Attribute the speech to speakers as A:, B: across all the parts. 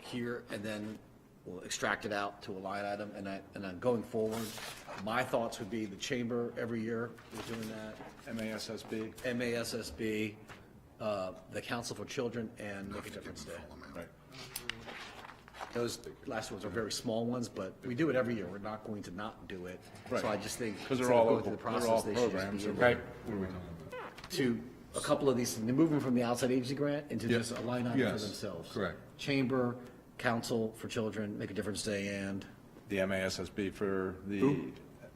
A: here, and then we'll extract it out to a line item, and I, and then going forward, my thoughts would be the chamber every year is doing that,
B: MASSB,
A: MASSB, uh, the Council for Children, and Make a Difference Day.
B: right.
A: Those last ones are very small ones, but we do it every year. We're not going to not do it. So I
B: Right.
A: just think.
B: Because they're
A: instead of
B: all,
A: going through the
B: local- they're
A: process,
B: all
A: they should just be
B: programs.
A: in
B: and
A: there.
B: What are we talking about?
A: to a couple of these, moving from the outside agency grant into
B: Yeah.
A: just a line item for
B: Yes,
A: themselves.
B: correct.
A: Chamber, council for children, make a difference day and,
B: The MASSB for the,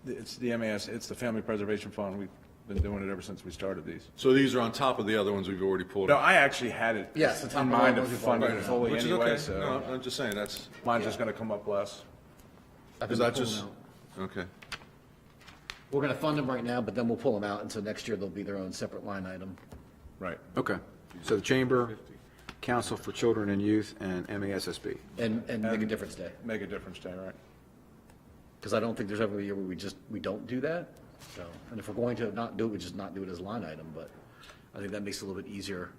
B: it's the MAS, it's the Family Preservation Fund. We've been doing it ever since we started these.
C: So these are on top of the other ones we've already pulled
B: No,
C: up?
B: I actually had it
A: Yes, the top
B: in
A: one
B: mind
A: was
B: of funding
A: before.
B: fully
C: Which is
B: anyway,
C: okay.
B: so
C: No, I'm just saying, that's,
B: mine's just gonna come up less.
A: I've
C: is
A: been
C: that
A: pulling
C: just,
A: out.
C: okay.
A: We're gonna fund them right now, but then we'll pull them out, and so next year they'll be their own separate line item.
B: Right.
D: Okay, so the Chamber, Council for Children and Youth, and MASSB.
A: And, and make a difference day,
B: Make a difference day, right?
A: because I don't think there's ever a year where we just, we don't do that. So, and if we're going to not do it, we just not do it as a line item, but I think that makes it a little bit easier.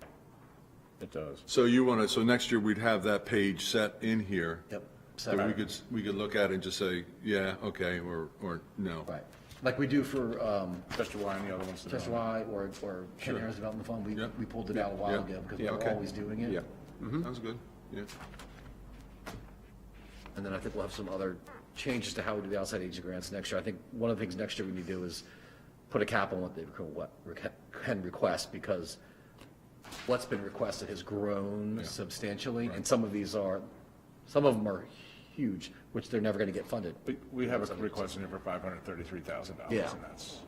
B: It does.
C: So you want to, so next year we'd have that page set in here?
A: Yep.
C: That we
A: separate.
C: could, s- we could look at it and just say, yeah, okay, or, or no.
A: Right, like we do for, um,
B: Chester Y and the other ones. that
A: Chester
B: don't.
A: Y or, or Ken Harris Development Fund, we,
C: Yeah.
A: we pulled it out a while
C: Yeah.
A: ago because
C: Yeah,
A: we're
C: okay.
A: always doing it. Mm-hmm.
D: Yeah,
C: Sounds good, yeah.
A: And then I think we'll have some other changes to how we do the outside agency grants next year. I think one of the things next year we need to do is put a cap on what they reco- what reca- can request, because what's been requested has grown substantially, and some of these are, some of them are huge, which they're never gonna get funded,
B: We, we have a request in here for five hundred thirty-three thousand dollars,
A: Yeah.
B: and that's,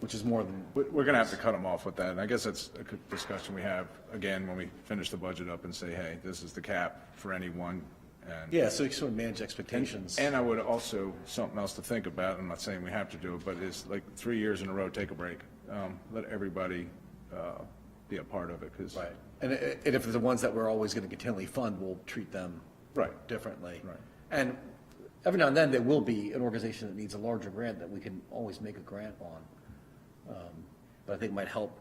A: which is more than,
B: we- we're gonna have to cut them off with that, and I guess that's a good discussion we have, again, when we finish the budget up and say, hey, this is the cap for any one, and.
A: yeah, so you sort of manage expectations.
B: And I would also, something else to think about, I'm not saying we have to do it, but it's like three years in a row, take a break. Um, Let everybody uh, be a part of it, because.
A: Right, and, i- and if the ones that we're always gonna continually fund, we'll treat them.
B: Right.
A: Differently.
B: Right.
A: And every now and then, there will be an organization that needs a larger grant that we can always make a grant on. Um, But I think might help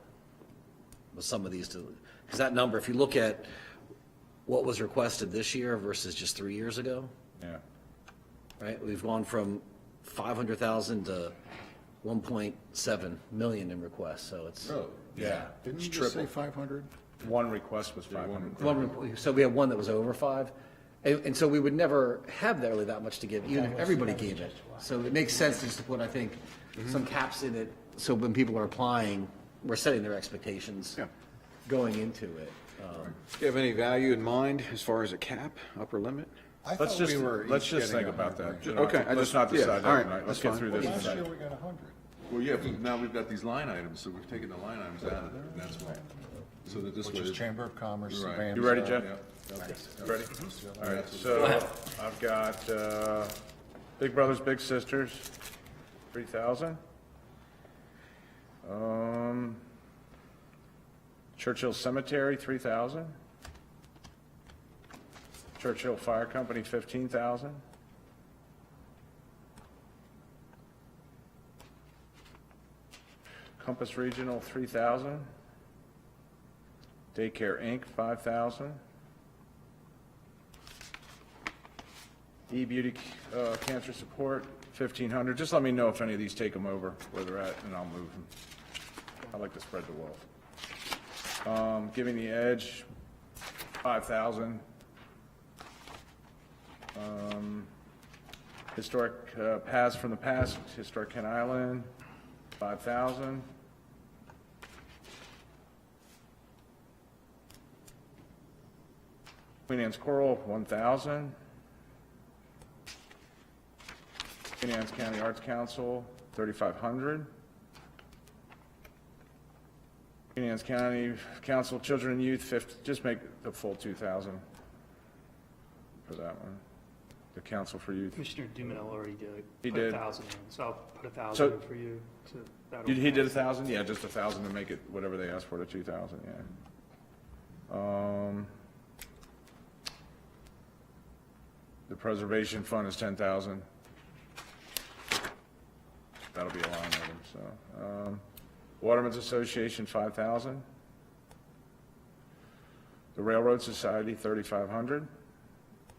A: with some of these to, because that number, if you look at what was requested this year versus just three years ago,
B: Yeah,
A: right? We've gone from five hundred thousand to one point seven million in requests, so it's. Yeah.
C: Oh, Didn't you just say five hundred?
B: one request was 500.
A: One report- So we had one that was over five, and, and so we would never have that really that much to give, even if everybody gave it. So it makes sense just to put, I think, some caps in it, so when people are applying, we're setting their expectations
B: Yeah.
A: going into it. Um,
D: Do you have any value in mind as far as a cap, upper limit?
E: I
B: Let's
E: thought
B: just,
E: we were
B: let's
E: each
B: just think
E: getting a
B: about that.
E: hundred.
B: You know,
D: Okay, I
B: Let's
D: just-
B: not
D: yeah,
B: decide that
D: all right,
B: tonight. Let's
D: that's
B: get
D: fine.
B: through this.
E: Last year
B: tonight.
E: we got a hundred.
C: Well, yeah, but now we've got these line items, so we've taken the line items out of there, and that's why. So that this way.
E: Which is Chamber of Commerce.
C: Right.
E: Van
B: You ready,
E: Star.
B: Jeff? Ready? All right,
C: That's
B: so I've got uh, Big Brothers Big Sisters, 3,000. Um, Churchill Cemetery, 3,000. Churchill Fire Company, 15,000. Compass Regional, 3,000. Daycare Inc., 5,000. E-Beauty uh, Cancer Support, 1,500. Just let me know if any of these take them over, where they're at, and I'll move them. I like to spread the wealth. Um, Giving the Edge, 5,000. Um, Historic uh, Paths from the Past, Historic Kent Island, 5,000. Queen Anne's Coral, 1,000. Queen Anne's County Arts Council, 3,500. Queen Anne's County Council Children and Youth, 50, just make the full 2,000 for that one. The Council for Youth.
F: Commissioner Dumanel already did.
B: He
F: put a
B: did.
F: thousand in, so I'll put a
B: So-
F: thousand in for you to. that'll
B: He did a
F: pass.
B: 1,000? Yeah, just a 1,000 to make it whatever they asked for to 2,000, yeah. Um, The Preservation Fund is 10,000. That'll be a line item, so. um, Watermen's Association, 5,000. The Railroad Society, 3,500.